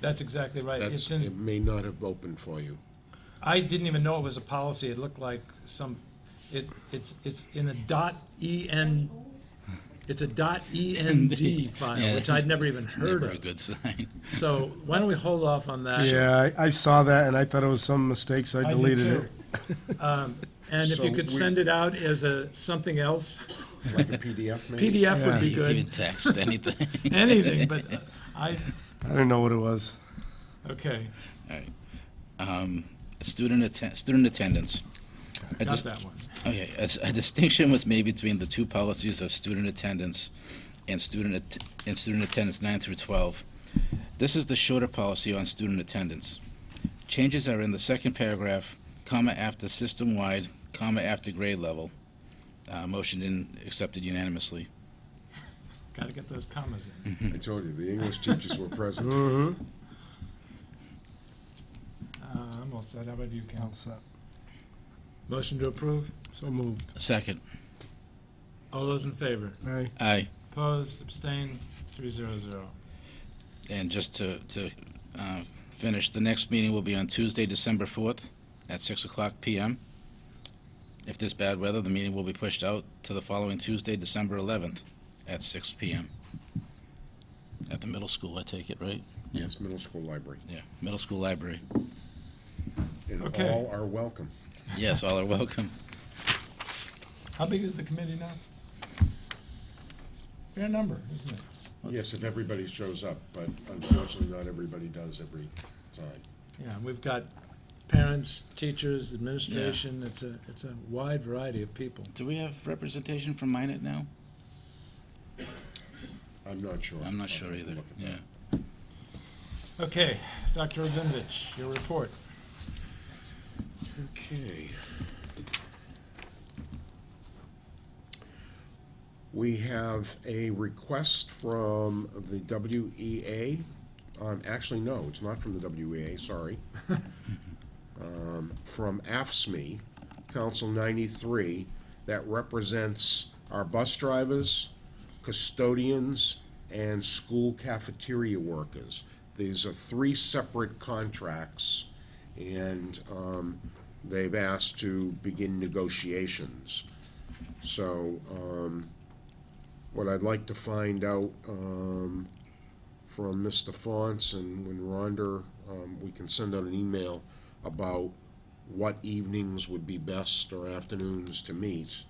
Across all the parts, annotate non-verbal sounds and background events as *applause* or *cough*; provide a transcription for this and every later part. That's exactly right. That's, It's in- it may not have opened for you. I didn't even know it was a policy. It looked like some, it, it's, it's in a dot EN, it's a dot END file, Yeah, which I'd never even It's heard *laughs* never a of. good sign. *laughs* So why don't we hold off on that? Yeah, I, I saw that and I thought it was some mistake, so I I did deleted too. *laughs* it. Um, And if you So could we- send it out as a, something else, *laughs* Like a PDF, maybe? PDF would be You can good, text anything. *laughs* anything, *laughs* but I, I didn't know what it was. okay, Um, Student atten- student attendance. I got just- that one. Okay, as a distinction was made between the two policies of student attendance and student, att- and student attendance nine through twelve. This is the shorter policy on student attendance. Changes are in the second paragraph, comma after system-wide, comma after grade level. Uh, motioned and accepted unanimously. Gotta get those commas Mm. in. I told you, the English teachers were *laughs* present. Mm-hmm. Uh, I'm all set. How about you, Cal? Motion to approve? So moved. Second. All those in favor? Aye. Aye. Opposed, abstained, three zero zero. And just to, to uh, finish, the next meeting will be on Tuesday, December 4th, at 6 o'clock PM. If there's bad weather, the meeting will be pushed out to the following Tuesday, December 11th, at 6 PM. At the middle school, I take it, right? Yes, middle school library. Yeah, middle school library. And Okay. all are welcome. Yes, all are welcome. How big is the committee now? Fair number, isn't it? Yes, and everybody shows up, but unfortunately, not everybody does every time. Yeah, and we've got parents, teachers, administration, it's a, it's a wide variety of people. Do we have representation from Minnet now? I'm not sure. I'm not I'll sure have to either, look at that. yeah. Okay, Dr. Rabinevich, your report. Okay. We have a request from the WEA. Um, actually, no, it's not from the WEA, sorry. Um, from AFSME, E, Council ninety-three, that represents our bus drivers, custodians, and school cafeteria workers. These are three separate contracts, and um, they've asked to begin negotiations. So um, what I'd like to find out um, from Mr. Fonce and when Rhonda, um, we can send out an email about what evenings would be best or afternoons to meet.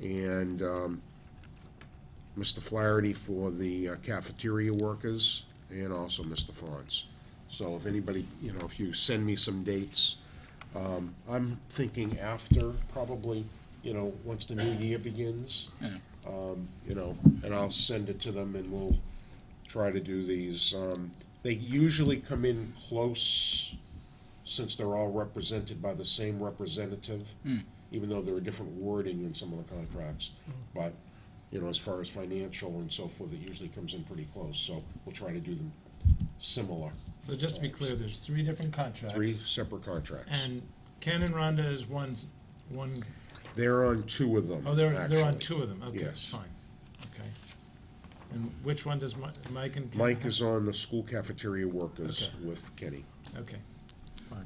And um, Mr. Flaherty for the uh, cafeteria workers, and also Mr. Fonce. So if anybody, you know, if you send me some dates, um, I'm thinking after, probably, you know, once the new year begins. Yeah. Um, you know, and I'll send it to them and we'll try to do these. Um, they usually come in close, since they're all represented by the same representative, even though there are different wording in some of the contracts. Hmm. But, you know, as far as financial and so forth, it usually comes in pretty close, so we'll try to do them similar. So just to be clear, there's three different Three contracts. separate contracts. And Ken and Rhonda is one, one, They're on two of them, oh, they're, they're on actually. two of them, okay, Yes. fine, okay. And which one does Mi- Mike and? Ken Mike have? is on the school cafeteria workers Okay. with Kenny. Okay, fine.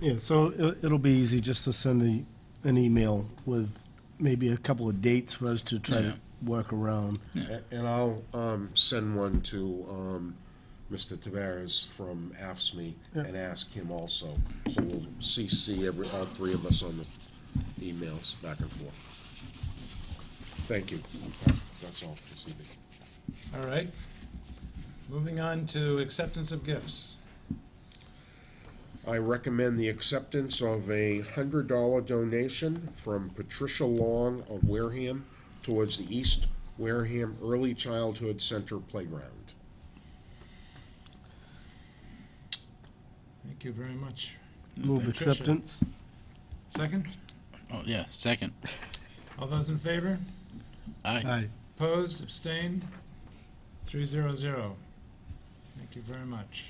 Yeah, so it, it'll be easy just to send a, an email with maybe a couple of dates for us to try to work around. A- And I'll um, send one to um, Mr. Taveras from AFSMI E and ask him also. So we'll CC every, all three of us on the emails back and forth. Thank you. That's all this evening. All right. Moving on to acceptance of gifts. I recommend the acceptance of a hundred dollar donation from Patricia Long of Wareham towards the East Wareham Early Childhood Center Playground. Thank you very much. Move Patricia. acceptance. Second, Oh, yeah, second. all those in favor? Aye. Opposed, abstained? Three zero zero. Thank you very much.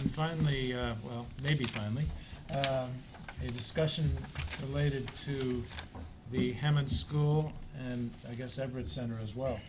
And finally, uh, well, maybe finally, um, a discussion related to the Hammond School and I guess Everett Center as well.